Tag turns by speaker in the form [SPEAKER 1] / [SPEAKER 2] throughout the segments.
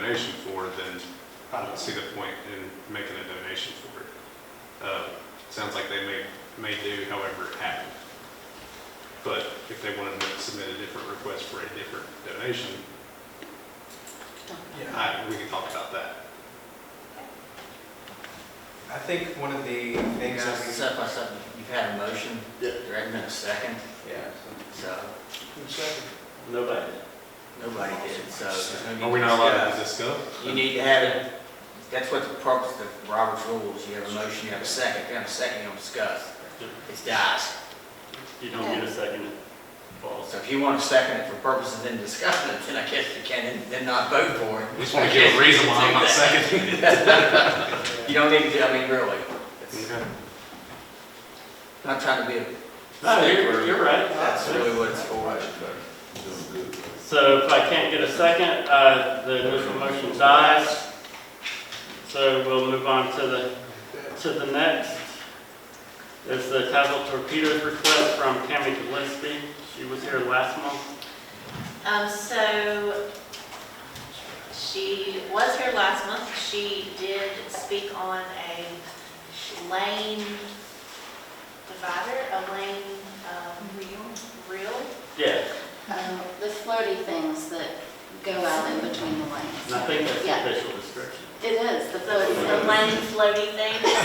[SPEAKER 1] donation for, then I don't see the point in making a donation for it. Uh, Sounds like they may, may do however it happened. But if they wanted to submit a different request for a different donation,
[SPEAKER 2] Yeah,
[SPEAKER 1] I, we can talk about that.
[SPEAKER 2] I think one of the things that we,
[SPEAKER 3] Step by step, you've had a motion.
[SPEAKER 4] Yeah.
[SPEAKER 3] There hasn't been a second,
[SPEAKER 2] yeah,
[SPEAKER 3] so
[SPEAKER 4] Nobody.
[SPEAKER 3] nobody did, so. there's no need
[SPEAKER 1] Are we
[SPEAKER 3] to
[SPEAKER 1] not allowed to
[SPEAKER 3] discuss.
[SPEAKER 1] discuss?
[SPEAKER 3] You need to have it, that's what the purpose of Robert's rules, you have a motion, you have a second, if you have a second, you don't discuss. It dies.
[SPEAKER 4] You don't get a second, it falls.
[SPEAKER 3] So if you want to second it for purposes in discussing it, then I guess you can, and then not vote for it.
[SPEAKER 1] We just want to give a reason why I'm not seconding it.
[SPEAKER 3] You don't need to, I mean, really. It's
[SPEAKER 1] Okay.
[SPEAKER 3] Not trying to be, a-
[SPEAKER 4] No, you're, you're right.
[SPEAKER 3] that's really what it's for.
[SPEAKER 4] So if I can't get a second, uh, the initial motion dies. So we'll move on to the, to the next. Is the Tassau Torpedoes request from Tammy Gillespie. She was here last month.
[SPEAKER 5] Um, so she was here last month. She did speak on a lane divider, a lane, um, reel.
[SPEAKER 4] Yeah,
[SPEAKER 6] Um, The floaty things that go out in between the
[SPEAKER 4] and I
[SPEAKER 6] lanes.
[SPEAKER 4] think that's
[SPEAKER 6] Yeah.
[SPEAKER 4] the official description.
[SPEAKER 6] It is, the floaty
[SPEAKER 5] The
[SPEAKER 6] things.
[SPEAKER 5] lane floaty things.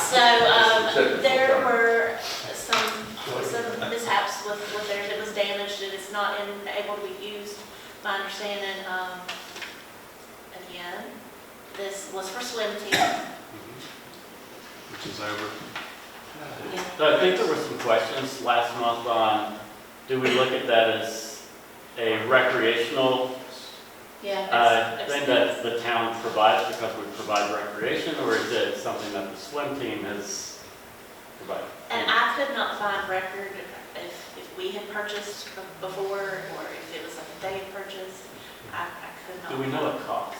[SPEAKER 5] So, um, there were some, some mishaps with, with theirs. It was damaged. It is not in- able to be used, my understanding. Um, again, this was for swim team.
[SPEAKER 1] Which is over.
[SPEAKER 4] So I think there were some questions last month on, do we look at that as a recreational
[SPEAKER 6] Yeah.
[SPEAKER 4] I think that Uh, the town provides because we provide recreation, or is it something that the swim team has provided?
[SPEAKER 5] And I could not find record if, if we had purchased before, or if it was something they had purchased. I, I could not.
[SPEAKER 4] Do we know what cost?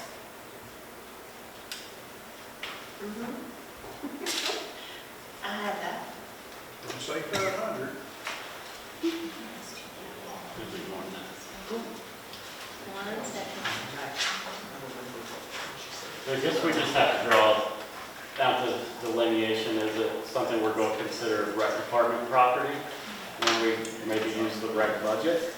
[SPEAKER 5] Mhm. Mm-hmm. I had that.
[SPEAKER 2] don't say five hundred.
[SPEAKER 4] Could be more than
[SPEAKER 5] One second.
[SPEAKER 4] that. I guess we just have to draw down to delineation, is it something we're going to consider rec department property? When we maybe use the rec budget?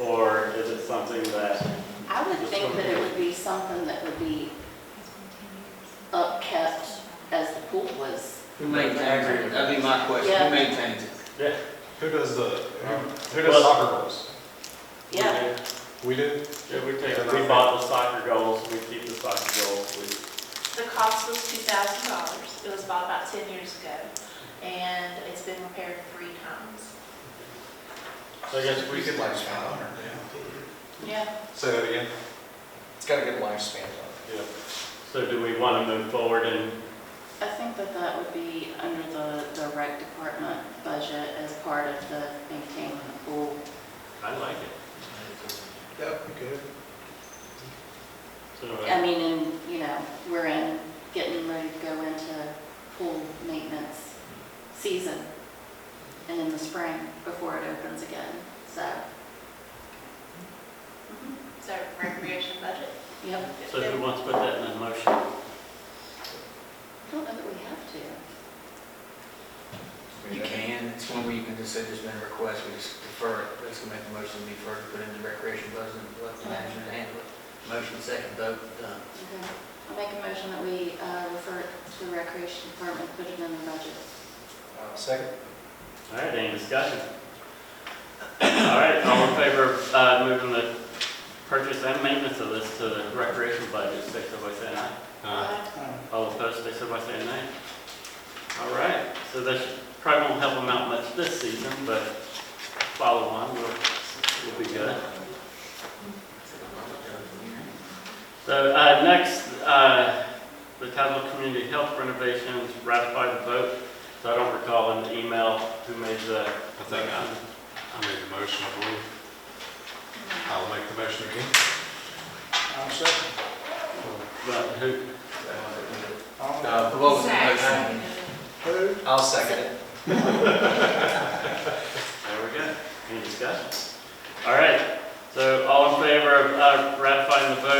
[SPEAKER 4] Or is it something that,
[SPEAKER 6] I would think that it would be something that would be upkept as the pool was.
[SPEAKER 3] Who maintains it? That'd be my question.
[SPEAKER 6] Yeah.
[SPEAKER 3] Who maintains it?
[SPEAKER 4] yeah?
[SPEAKER 1] Who does the, who, who
[SPEAKER 4] Well-
[SPEAKER 1] does soccer goals?
[SPEAKER 4] we
[SPEAKER 5] Yeah.
[SPEAKER 4] do.
[SPEAKER 1] We do.
[SPEAKER 4] Yeah, we take, we bought the soccer goals, we keep the soccer goals, we
[SPEAKER 5] The cost was two thousand dollars. It was bought about ten years ago, and it's been repaired three times.
[SPEAKER 4] So I guess we could,
[SPEAKER 2] last five hundred now.
[SPEAKER 5] Yeah.
[SPEAKER 1] Say that again.
[SPEAKER 2] It's got a good lifespan on
[SPEAKER 4] yeah. So do we want to move forward and,
[SPEAKER 6] I think that that would be under the, the rec department budget as part of the maintaining the pool.
[SPEAKER 4] I like it.
[SPEAKER 2] it. Yep, good.
[SPEAKER 4] So do
[SPEAKER 6] I
[SPEAKER 4] I-
[SPEAKER 6] mean, and, you know, we're in, getting ready to go into pool maintenance season and in the spring before it opens again, so,
[SPEAKER 5] So recreation budget.
[SPEAKER 6] yep.
[SPEAKER 4] so who wants to put that in a motion?
[SPEAKER 6] I don't know that we have to.
[SPEAKER 3] You can, it's one where you can just say there's been a request, we just defer it, let's go make a motion to defer, to put it in the recreation budget, and let the management handle it. Motion second, vote, done.
[SPEAKER 6] Okay. I'll make a motion that we uh, refer it to the recreation department, put it in the budget.
[SPEAKER 2] Uh, Second?
[SPEAKER 4] All right, any discussion? All right, all in favor of uh, moving the purchase and maintenance of this to the recreation budget, say so by saying aye.
[SPEAKER 1] Uh,
[SPEAKER 4] All opposed, say so by saying nay. All right, so that should- probably won't help them out much this season, but follow on, we'll, we'll be good. So uh, next, uh, the Tazewell Community Health renovations ratify the vote. So I don't recall in the email who made the.
[SPEAKER 1] I think I,
[SPEAKER 4] uh,
[SPEAKER 1] I made the motion, I believe. I'll make the motion again.
[SPEAKER 2] I'm second.
[SPEAKER 4] But who,
[SPEAKER 3] Uh, What was the motion?
[SPEAKER 2] Um, Who? I'll second it.
[SPEAKER 4] there we go. Any discussion? All right, so all in favor of uh, ratifying the vote